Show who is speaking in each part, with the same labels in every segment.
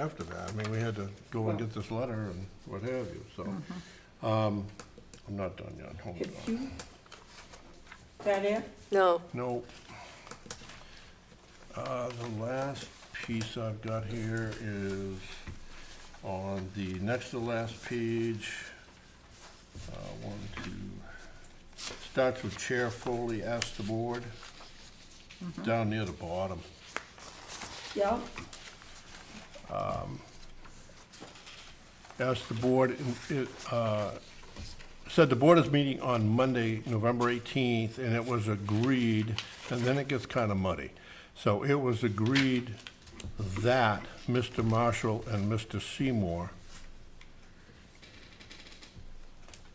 Speaker 1: after that. I mean, we had to go and get this letter and what have you, so. Um, I'm not done yet, hold
Speaker 2: Mm-hmm. If
Speaker 1: on.
Speaker 2: you, that it?
Speaker 3: No,
Speaker 1: No. Uh, the last piece I've got here is on the next to last page. Uh, one, two, starts with Chair Foley asked the board,
Speaker 2: Mm-hmm.
Speaker 1: down near the bottom.
Speaker 2: Yeah,
Speaker 1: asked the board, in- it, uh, said the board is meeting on Monday, November 18th, and it was agreed, and then it gets kind of muddy. So it was agreed that Mr. Marshall and Mr. Seymour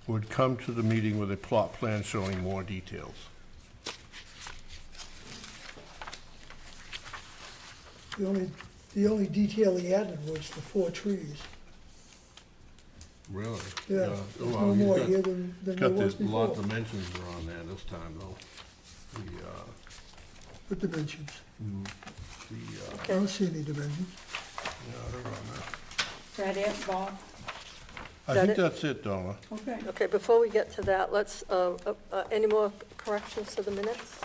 Speaker 1: would come to the meeting with a plot plan showing more details.
Speaker 4: The only, the only detail he added was the four trees.
Speaker 1: Really?
Speaker 4: Yeah, there's no more here than, than there was
Speaker 1: Got the lot
Speaker 4: before
Speaker 1: dimensions are on there this time, though. The, uh,
Speaker 4: with dimensions.
Speaker 1: the, uh,
Speaker 4: I don't see any dimensions.
Speaker 1: yeah, they're on there.
Speaker 2: that it, Bob?
Speaker 1: I
Speaker 3: That
Speaker 1: think
Speaker 3: it?
Speaker 1: that's it, Donna.
Speaker 2: Okay.
Speaker 3: okay, before we get to that, let's, uh, uh, uh, any more corrections to the minutes?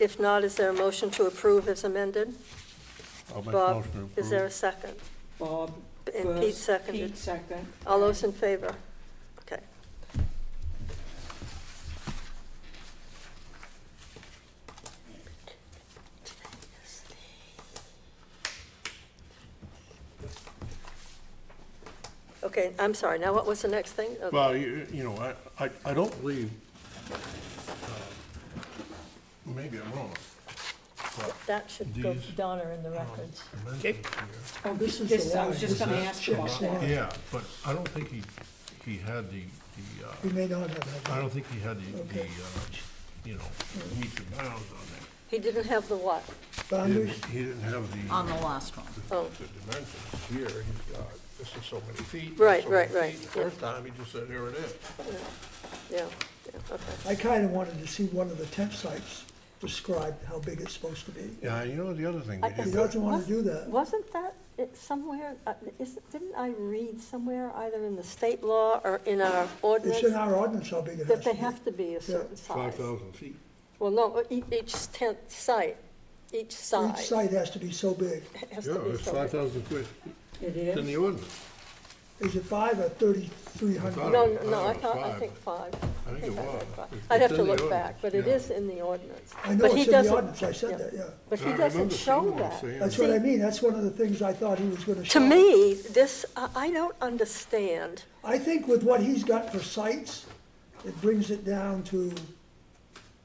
Speaker 3: If not, is there a motion to approve as amended?
Speaker 1: I'll make
Speaker 3: Bob,
Speaker 1: motion to
Speaker 3: is there a
Speaker 1: approve.
Speaker 3: second?
Speaker 2: Bob
Speaker 3: And Pete
Speaker 2: first,
Speaker 3: seconded.
Speaker 2: Pete second.
Speaker 3: All those in favor? Okay. Okay, I'm sorry, now what was the next thing? Uh,
Speaker 1: Well, you, you know, I, I, I don't believe, uh, maybe I'm wrong, but
Speaker 3: That should go
Speaker 1: these- Oh.
Speaker 3: Donna in the records.
Speaker 1: dimensions
Speaker 2: Oh,
Speaker 4: This is
Speaker 2: this,
Speaker 4: the
Speaker 2: I was
Speaker 4: line.
Speaker 2: just gonna
Speaker 1: This is
Speaker 2: ask you about
Speaker 4: check
Speaker 1: here.
Speaker 2: that.
Speaker 1: Yeah, but I don't think he, he had the, the,
Speaker 4: We
Speaker 1: uh,
Speaker 4: may not have
Speaker 1: I
Speaker 4: that.
Speaker 1: don't think he had the, the, uh,
Speaker 4: Okay.
Speaker 1: you know, meets and bounds on
Speaker 3: He didn't have the what?
Speaker 1: that. He
Speaker 4: Boundaries,
Speaker 1: didn't- He didn't have the.
Speaker 5: on the last one.
Speaker 3: Oh,
Speaker 1: The dimensions here, he's got, this is so many feet.
Speaker 3: Right,
Speaker 1: so many
Speaker 3: right, right.
Speaker 1: feet. The First time, he just said, here it is.
Speaker 3: yeah, yeah, okay.
Speaker 4: I kinda wanted to see one of the tent sites described how big it's supposed to be.
Speaker 1: Yeah, you know, the other thing
Speaker 3: I-
Speaker 1: we
Speaker 3: I
Speaker 4: He
Speaker 1: did,
Speaker 4: doesn't wanna do that.
Speaker 3: Wasn't that it somewhere, uh, is- didn't I read somewhere, either in the state law or in our
Speaker 4: It's in
Speaker 3: ordinance,
Speaker 4: our ordinance how big it has
Speaker 3: that
Speaker 4: to
Speaker 3: they
Speaker 4: be.
Speaker 3: have to be a certain
Speaker 1: five
Speaker 3: size?
Speaker 1: thousand feet.
Speaker 3: Well, no, e- each tent site, each side
Speaker 4: Each site has to be so big.
Speaker 3: has
Speaker 1: Yeah,
Speaker 3: to be
Speaker 1: it's five
Speaker 3: so
Speaker 1: thousand feet.
Speaker 2: It
Speaker 1: It's in the
Speaker 2: is.
Speaker 1: ordinance.
Speaker 4: Is it five or thirty-three
Speaker 1: I
Speaker 3: big.
Speaker 4: hundred?
Speaker 3: No,
Speaker 1: don't-
Speaker 3: no, no,
Speaker 1: I
Speaker 3: I
Speaker 1: don't know,
Speaker 3: thought, I
Speaker 1: five.
Speaker 3: think five.
Speaker 1: I think it
Speaker 3: I
Speaker 1: was.
Speaker 3: read five.
Speaker 1: It's-
Speaker 3: I'd have
Speaker 1: it's
Speaker 3: to
Speaker 1: in the
Speaker 3: look back,
Speaker 1: ordinance,
Speaker 3: but it
Speaker 1: yeah.
Speaker 3: is in the ordinance.
Speaker 4: I know
Speaker 3: But
Speaker 4: it's
Speaker 3: he
Speaker 4: in the
Speaker 3: doesn't-
Speaker 4: ordinance, I
Speaker 3: yeah.
Speaker 4: said that, yeah.
Speaker 1: I
Speaker 3: But he doesn't
Speaker 1: remember
Speaker 3: show
Speaker 1: Seymour
Speaker 3: that.
Speaker 1: saying
Speaker 4: That's what I mean, that's one of the things I thought he was gonna show.
Speaker 3: To me, this, I I don't understand.
Speaker 4: I think with what he's got for sites, it brings it down to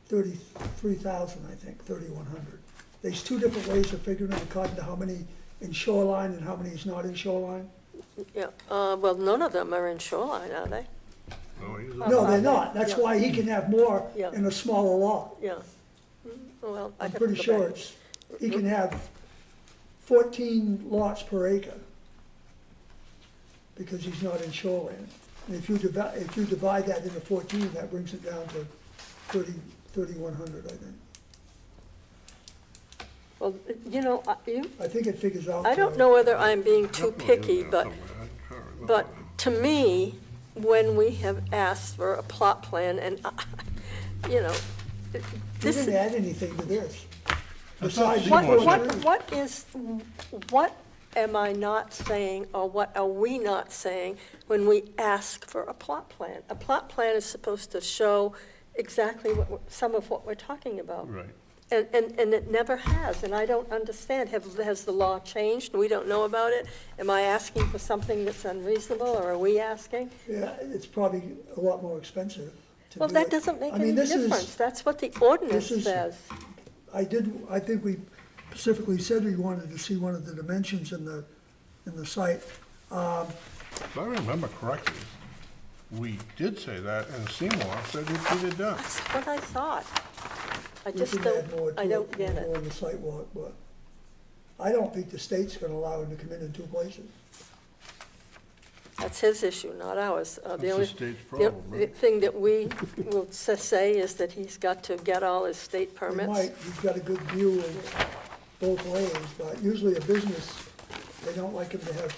Speaker 4: thirty-three thousand, I think, thirty-one hundred. There's two different ways of figuring it according to how many in shoreline and how many is not in shoreline.
Speaker 3: Yeah, uh, well, none of them are in shoreline, are they?
Speaker 1: No, he's in-
Speaker 4: No, they're not, that's
Speaker 3: Yeah.
Speaker 4: why he can have more
Speaker 3: Yeah.
Speaker 4: in a smaller lot.
Speaker 3: Yeah. Mm, Well, I
Speaker 4: I'm
Speaker 3: have to
Speaker 4: pretty
Speaker 3: go
Speaker 4: sure
Speaker 3: back.
Speaker 4: it's, he can have fourteen lots per acre because he's not in shoreline. And if you divide, if you divide that into fourteen, that brings it down to thirty, thirty-one hundred, I think.
Speaker 3: Well, you know, I- you,
Speaker 4: I think it figures out.
Speaker 3: I don't
Speaker 4: to-
Speaker 3: know whether I'm being too
Speaker 1: Definitely in
Speaker 3: picky,
Speaker 1: there
Speaker 3: but,
Speaker 1: somewhere. I can't remember.
Speaker 3: but to me, when we have asked for a plot plan and, I- you know, th-
Speaker 4: We
Speaker 3: this,
Speaker 4: didn't add anything to this.
Speaker 1: I thought
Speaker 4: Besides-
Speaker 3: what,
Speaker 1: Seymour
Speaker 3: what,
Speaker 1: said-
Speaker 3: what is, what am I not saying or what are we not saying when we ask for a plot plan? A plot plan is supposed to show exactly what, we're- some of what we're talking about.
Speaker 1: Right.
Speaker 3: And, and, and it never has, and I don't understand, have, has the law changed, and we don't know about it? Am I asking for something that's unreasonable, or are we asking?
Speaker 4: Yeah, it's probably a lot more expensive to
Speaker 3: Well,
Speaker 4: do
Speaker 3: that
Speaker 4: it.
Speaker 3: doesn't make
Speaker 4: I mean,
Speaker 3: any
Speaker 4: this is-
Speaker 3: difference, that's what the ordinance
Speaker 4: this is-
Speaker 3: says.
Speaker 4: I did, I think we specifically said we wanted to see one of the dimensions in the, in the site.
Speaker 1: If I remember correctly, we did say that, and Seymour said he did it down.
Speaker 3: That's what I thought. I
Speaker 4: We
Speaker 3: just
Speaker 4: can
Speaker 3: don't,
Speaker 4: add more to
Speaker 3: I don't
Speaker 4: it,
Speaker 3: get
Speaker 4: more
Speaker 3: it.
Speaker 4: on the site walk, but I don't think the state's gonna allow him to come in in two places.
Speaker 3: That's his issue, not ours. Uh,
Speaker 1: That's
Speaker 3: The only
Speaker 1: the state's
Speaker 3: the-
Speaker 1: problem,
Speaker 3: the
Speaker 1: right?
Speaker 3: thing that we will s- say is that he's got to get all his state
Speaker 4: They
Speaker 3: permits.
Speaker 4: might, he's got a good view of both lanes, but usually a business They don't like him to have